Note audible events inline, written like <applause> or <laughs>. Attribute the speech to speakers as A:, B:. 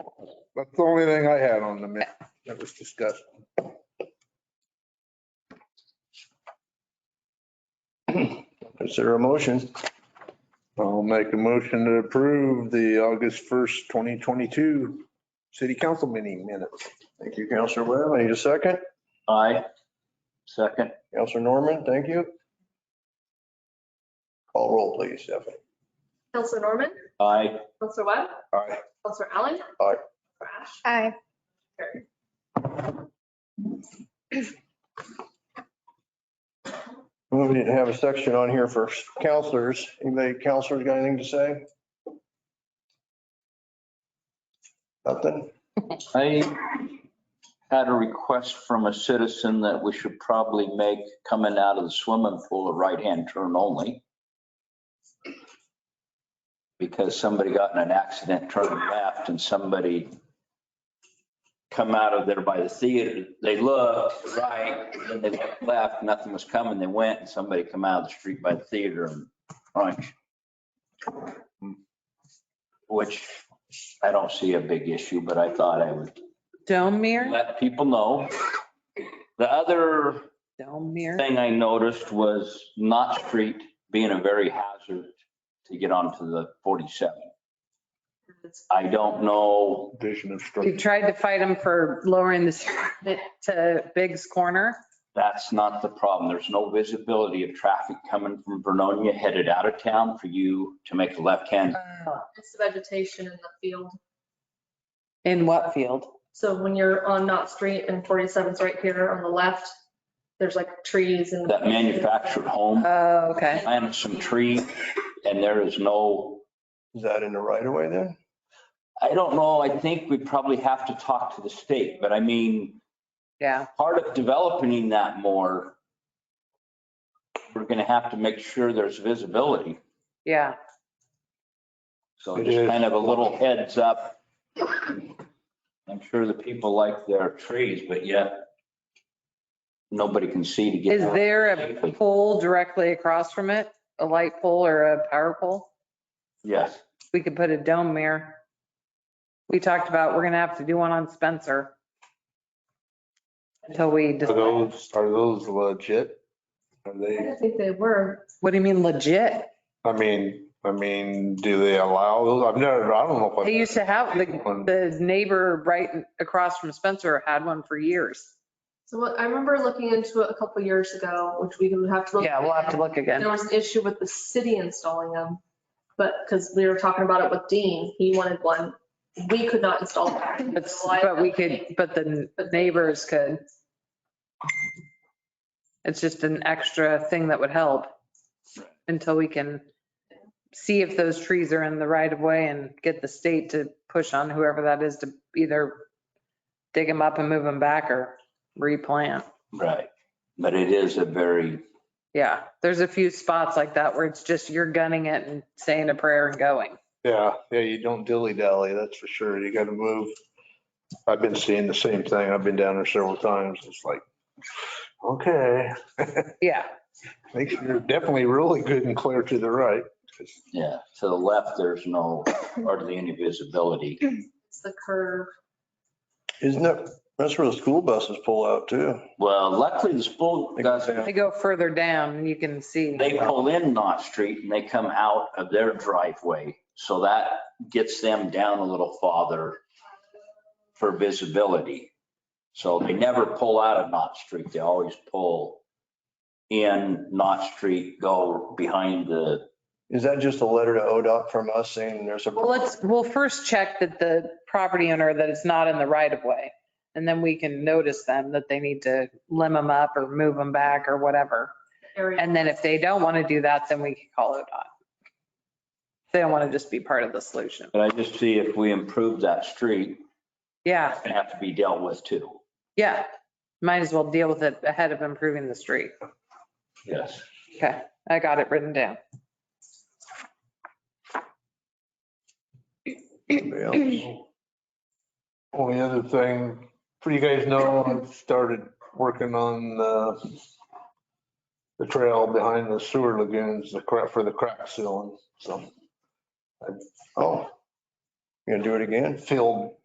A: That's the only thing I had on the minute that
B: <clears throat>
A: was discussed.
B: Consider a motion.
A: I'll make a motion to approve the August 1st, 2022 city council meeting minutes.
B: Thank you, Counselor Webb. I need a second.
C: Aye. Second.
B: Counselor Norman, thank you. Call roll, please, Stephanie.
D: Counselor Norman,
C: Aye.
D: Counselor Webb,
A: Aye.
D: Counselor Allen.
B: Aye.
D: Counselor Ash.
E: Aye.
D: Carried.
B: We didn't have a section on here for counselors. Anybody, counselors got anything to say? Nothing?
C: I had a request from a citizen that we should probably make coming out of the swimming pool a right-hand turn only. Because somebody got in an accident, turned left, and somebody come out of there by the theater. They looked right, then they looked left, nothing was coming. They went and somebody come out of the street by the theater and crunch. Which I don't see a big issue, but I thought I would
F: Domir,
C: let people know. The other
F: Domir.
C: thing I noticed was Knott Street being a very hazard to get onto the 47. I don't know,
A: Vision of
F: We've
A: structure.
F: tried to fight them for lowering the <laughs> street to Biggs Corner.
C: that's not the problem. There's no visibility of traffic coming from Vernonia headed out of town for you to make a left-hand.
D: It's the vegetation in the field.
F: In what field?
D: So when you're on Knott Street and 47's right here on the left, there's like trees and.
C: That manufactured home
F: Oh, okay.
C: planted some tree and there is no
B: Is that in the right of way then?
C: I don't know. I think we probably have to talk to the state, but I mean,
F: Yeah.
C: part of developing that more, we're going to have to make sure there's visibility.
F: Yeah.
C: So
A: It
C: just
A: is.
C: kind of a little heads up. I'm sure the people like their trees, but yet nobody can see to get.
F: Is there a pole directly across from it? A light pole or a power pole?
C: Yes.
F: We could put a Domir. We talked about, we're gonna have to do one on Spencer. Until we,
A: Are
F: decide.
A: those, are those legit? Are
D: I
A: they,
D: didn't think they were.
F: what do you mean legit?
A: I mean, I mean, do they allow those? I've never, I don't know. if
F: They
A: I've-
F: used to have, the, the neighbor right across from Spencer had one for years.
D: So what, I remember looking into it a couple years ago, which we would have to look.
F: Yeah, we'll have to look
D: There
F: again.
D: was an issue with the city installing them, but, because we were talking about it with Dean, he wanted one. We could not install them.
F: But, but we could, but the neighbors could. It's just an extra thing that would help until we can see if those trees are in the right of way and get the state to push on whoever that is to either dig them up and move them back or replant.
C: Right. But it is a very,
F: Yeah, there's a few spots like that where it's just you're gunning it and saying a prayer and going.
A: Yeah, yeah, you don't dilly dally, that's for sure. You gotta move. I've been seeing the same thing. I've been down there several times. It's like, okay,
F: Yeah.
A: make sure you're definitely really good and clear to the right.
C: yeah, to the left, there's no hardly any visibility.
D: It's the curve.
B: Isn't that, that's where the school buses pull out too.
C: Well, luckily the school doesn't
F: They go further down and you can see.
C: They pull in Knott Street and they come out of their driveway, so that gets them down a little farther for visibility. So they never pull out of Knott Street, they always pull in Knott Street, go behind the,
B: Is that just a letter to ODOT from us saying there's a?
F: Well, let's, we'll first check that the property owner, that it's not in the right of way. And then we can notice them that they need to limb them up or move them back or whatever.
D: area.
F: And then if they don't want to do that, then we can call ODOT. They don't want to just be part of the solution.
C: but I just see if we improve that street,
F: Yeah,
C: it's gonna have to be dealt with too.
F: yeah. Might as well deal with it ahead of improving the street.
C: Yes.
F: Okay, I got it written down.
A: Only other thing, for you guys know, I've started working on the, the trail behind the sewer lagoons, the crack, for the crack sealing. So
B: Oh, you gonna do it again?
A: filled